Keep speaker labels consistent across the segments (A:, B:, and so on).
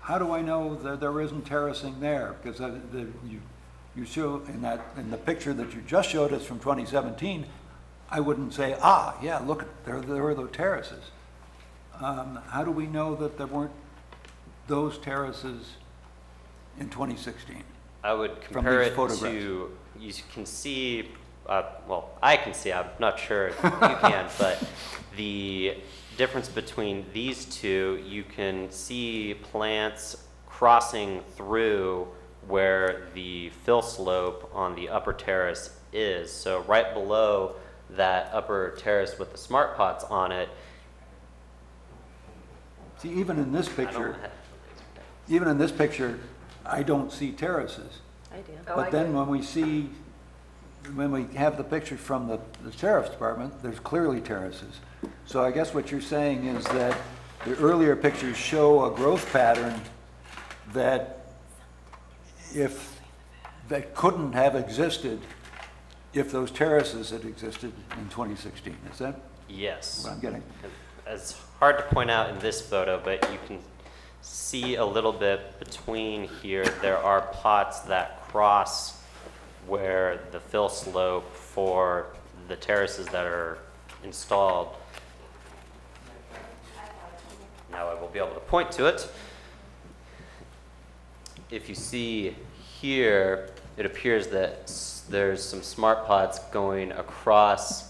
A: how do I know that there isn't terracing there? Because uh, the, you, you show in that, in the picture that you just showed us from 2017, I wouldn't say, ah, yeah, look, there, there are the terraces. Um, How do we know that there weren't those terraces in 2016?
B: I would compare
A: these
B: it
A: photographs.
B: to, you s- can see, uh, well, I can see, I'm not sure if you can, but the difference between these two, you can see plants crossing through where the fill slope on the upper terrace is. So right below that upper terrace with the smart pots on it,
A: See, even in this
B: I don't
A: picture,
B: have,
A: even in this picture, I don't see terraces.
C: I do.
D: Oh, I
A: But then
D: do.
A: when we see, when we have the picture from the the sheriff's department, there's clearly terraces. So I guess what you're saying is that the earlier pictures show a growth pattern that if, that couldn't have existed if those terraces had existed in 2016. Is that
B: yes.
A: what I'm getting?
B: It's hard to point out in this photo, but you can see a little bit between here, there are pots that cross where the fill slope for the terraces that are installed. Now I will be able to point to it. If you see here, it appears that s- there's some smart pots going across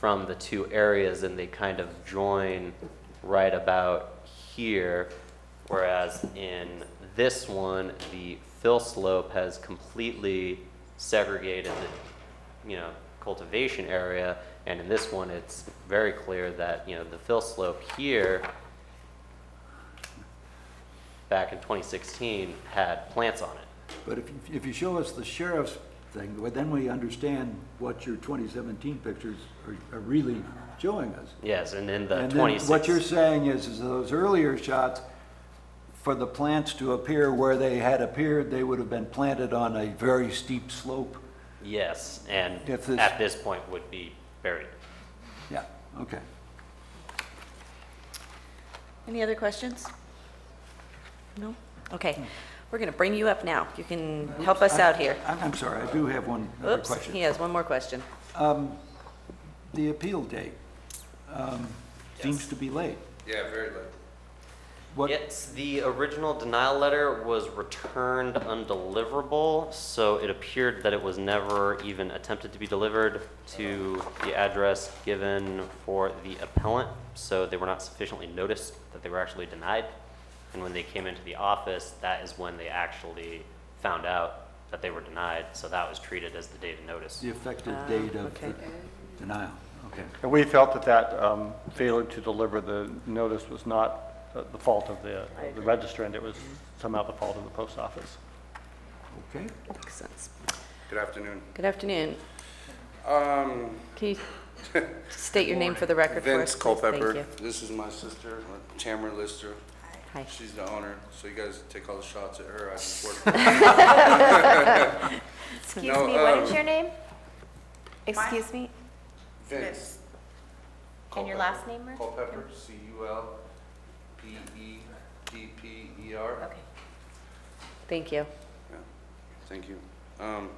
B: from the two areas and they kind of join right about here. Whereas in this one, the fill slope has completely segregated the, you know, cultivation area. And in this one, it's very clear that, you know, the fill slope here back in 2016 had plants on it.
A: But if, you- if you show us the sheriff's thing, well, then we understand what your 2017 pictures are- are really showing us.
B: Yes, and in the
A: And then
B: 26.
A: what you're saying is, is those earlier shots, for the plants to appear where they had appeared, they would have been planted on a very steep slope?
B: Yes, and
A: If this-
B: at this point would be buried.
A: Yeah, okay.
C: Any other questions? No? Okay. We're going to bring you up now. You can help us out here.
A: I'm, I'm sorry, I do have one other
C: Oops,
A: question.
C: he has one more question.
A: The appeal date um, seems to be late.
E: Yeah, very late.
A: What,
B: Yes, the original denial letter was returned undeliverable, so it appeared that it was never even attempted to be delivered to the address given for the appellant, so they were not sufficiently noticed that they were actually denied. And when they came into the office, that is when they actually found out that they were denied, so that was treated as the date of notice.
A: the effective
C: Ah,
A: date of
C: okay.
A: the denial? Okay.
F: And we felt that that um, failure to deliver the notice was not uh, the fault of the of the registrant, it was somehow the fault of the post office.
A: Okay.
C: Makes sense.
E: Good afternoon.
C: Good afternoon.
E: Um,
C: Can you state your name for the record for us?
E: Vince
C: please? Thank
E: Culpepper.
C: you.
E: This is my sister, Tamara Lister.
C: Hi.
E: She's the owner, so you guys take all the shots at her. I support.
D: Excuse
E: No,
D: me, what is
E: um,
D: your name? Excuse me,
E: Vince.
D: and your
E: Culpepper.
D: last name, Rick?
E: Culpepper, E C-U-L-P-E-P-P-E-R.
D: Okay.
C: Thank you.
E: Thank you. Um,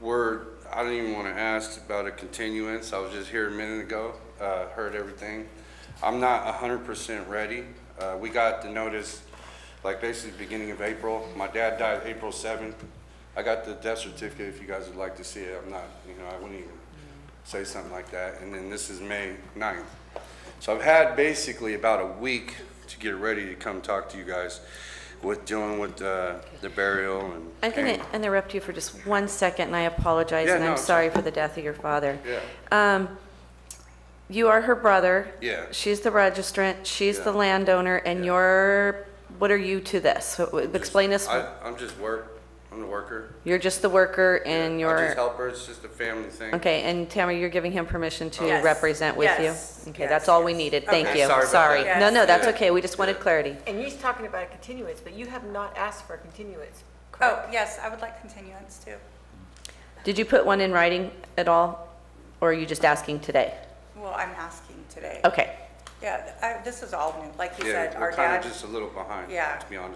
E: We're, I didn't even want to ask about a continuance. I was just here a minute ago, uh, heard everything. I'm not 100% ready. Uh, We got the notice, like basically beginning of April. My dad died April 7th. I got the death certificate if you guys would like to see it. I'm not, you know, I wouldn't even say something like that. And then this is May 9th. So I've had basically about a week to get ready to come talk to you guys with dealing with uh, the burial and.
C: I'm going to interrupt you for just one second, and I apologize,
E: Yeah,
C: and
E: no,
C: I'm
E: it's
C: sorry for the death of your father.
E: Yeah.
C: Um, You are her brother.
E: Yeah.
C: She's the registrant, she's
E: Yeah.
C: the landowner, and you're, what are you to this? So, w- Explain this,
E: I, I'm just work, I'm the worker.
C: you're just the worker and
E: I just
C: you're,
E: help her, it's just a family thing.
C: okay, and Tamara, you're giving him permission to
G: Yes.
C: represent with you?
G: Yes.
C: Okay,
G: Yes,
C: that's all we
G: yes.
C: needed, thank
E: Okay,
C: you,
E: sorry about
C: sorry.
E: that.
C: No, no,
G: Yes.
C: that's
E: Yeah.
C: okay, we just wanted clarity.
G: And you're talking about a continuance, but you have not asked for a continuance,
H: Oh,
G: correct?
H: yes, I would like continuance too.
C: Did you put one in writing at all, or are you just asking today?
H: Well, I'm asking today.
C: Okay.
H: Yeah, I- this is all new, like you
E: Yeah,
H: said, our
E: we're kinda
H: dad.
E: just a little behind,
H: Yeah.
E: to be honest